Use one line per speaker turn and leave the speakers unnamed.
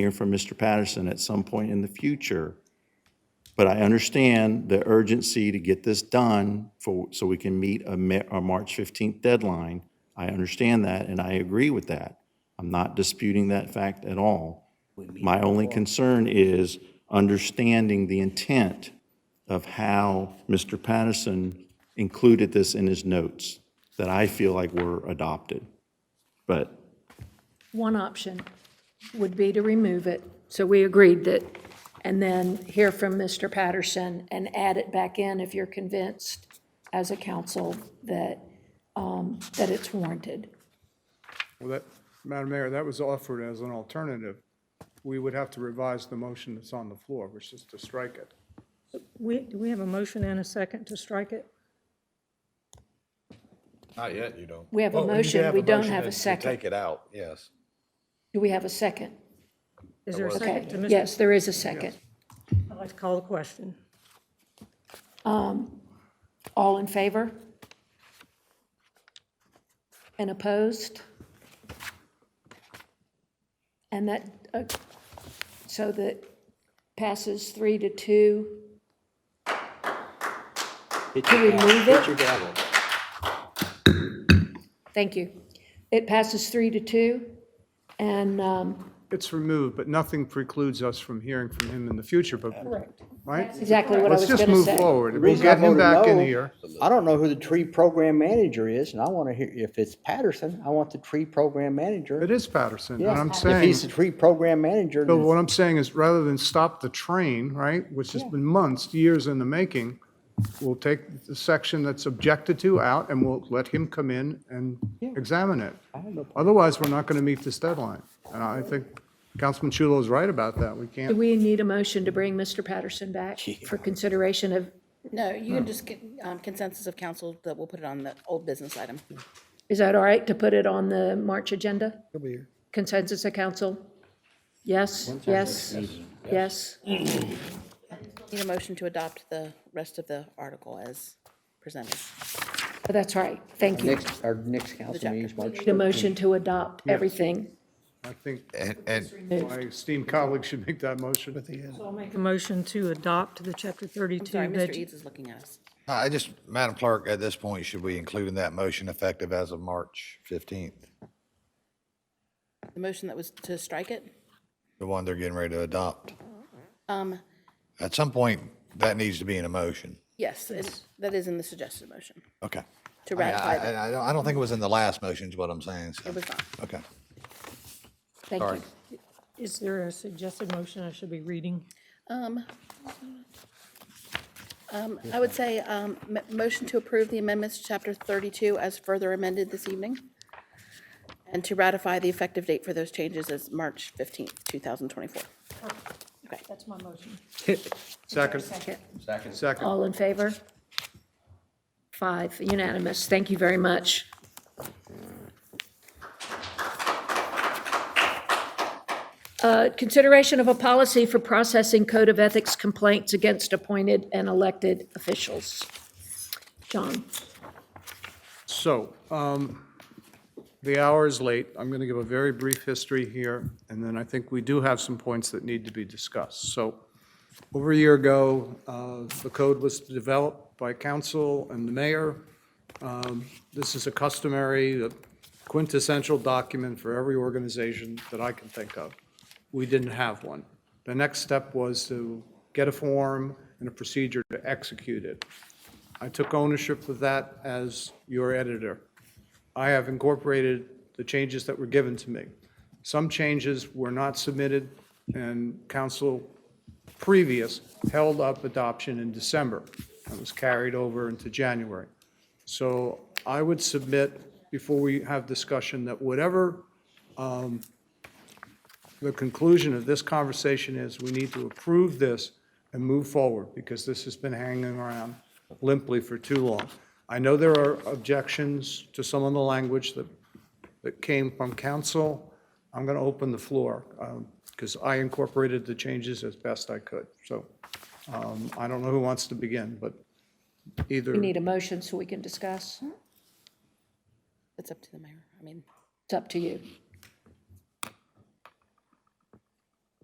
hear from Mr. Patterson at some point in the future. But I understand the urgency to get this done for, so we can meet a Ma- a March 15th deadline. I understand that, and I agree with that. I'm not disputing that fact at all. My only concern is understanding the intent of how Mr. Patterson included this in his notes that I feel like were adopted. But
One option would be to remove it, so we agreed that, and then hear from Mr. Patterson and add it back in if you're convinced as a council that, um, that it's warranted.
Well, that, Madam Mayor, that was offered as an alternative. We would have to revise the motion that's on the floor, which is to strike it.
We, do we have a motion and a second to strike it?
Not yet, you don't.
We have a
Well, you
motion,
have
we
a
don't
motion
have a
to- to
second.
Take it out, yes.
Do we have a second?
Is there a
Okay,
second to Mr.?
yes, there is a second.
I'd like to call the question.
All in favor? And opposed? And that, uh, so that passes three to two to remove it? Thank you. It passes three to two, and, um,
It's removed, but nothing precludes us from hearing from him in the future, but, right?
exactly what I was
Let's
going
just
to
move
say.
forward.
The
We'll
reason I
get him
voted
back in
no,
here.
I don't know who the tree program manager is, and I want to hear, if it's Patterson, I want the tree program manager.
It is Patterson, and
Yeah,
I'm
If
saying,
he's the tree program manager,
but
then-
what I'm saying is rather than stop the train, right, which has been months, years in the making, we'll take the section that's objected to out and we'll let him come in and examine it.
I have no problem.
Otherwise, we're not going to meet this deadline. And I think Councilman Chulo is right about that. We
Do
can't,
we need a motion to bring Mr. Patterson back for consideration of,
No, you can just get um, consensus of council that we'll put it on the old business item.
is that all right to put it on the March agenda? Consensus of council? Yes, yes, yes.
Need a motion to adopt the rest of the article as presented.
Oh, That's right, thank you.
next, our next council meeting is March
The motion to adopt everything.
I think
And, and
my esteemed colleague should make that motion at the end.
I'll make a motion to adopt the chapter
Sorry,
32
Mr.
budget.
Eads is looking at us.
I just, Madam Clerk, at this point, should we include in that motion effective as of March 15th?
The motion that was to strike it,
The one they're getting ready to adopt?
um,
At some point, that needs to be in a motion.
yes, it- that is in the suggested motion,
Okay.
to
I, I,
ratify the,
I- I don't, I don't think it was in the last motion is what I'm saying, so,
it was not.
okay.
Thank you.
Is there a suggested motion I should be reading?
Um, um, I would say, um, m- motion to approve the amendments to chapter thirty-two as further amended this evening, and to ratify the effective date for those changes as March fifteenth, two thousand twenty-four. Okay.
That's my motion.
Second, second.
All in favor? Five, unanimous, thank you very much. Uh, Consideration of a policy for processing code of ethics complaints against appointed and elected officials. John?
So, um, the hour is late. I'm going to give a very brief history here, and then I think we do have some points that need to be discussed. So, over a year ago, uh, the code was developed by council and the mayor. Um, This is a customary uh, quintessential document for every organization that I can think of. We didn't have one. The next step was to get a form and a procedure to execute it. I took ownership of that as your editor. I have incorporated the changes that were given to me. Some changes were not submitted, and council previous held up adoption in December. That was carried over into January. So I would submit, before we have discussion, that whatever um, the conclusion of this conversation is, we need to approve this and move forward, because this has been hanging around limply for too long. I know there are objections to some of the language that, that came from council. I'm going to open the floor, because I incorporated the changes as best I could. So um, I don't know who wants to begin, but either.
We need a motion so we can discuss.
It's up to the mayor. I mean,
It's up to you.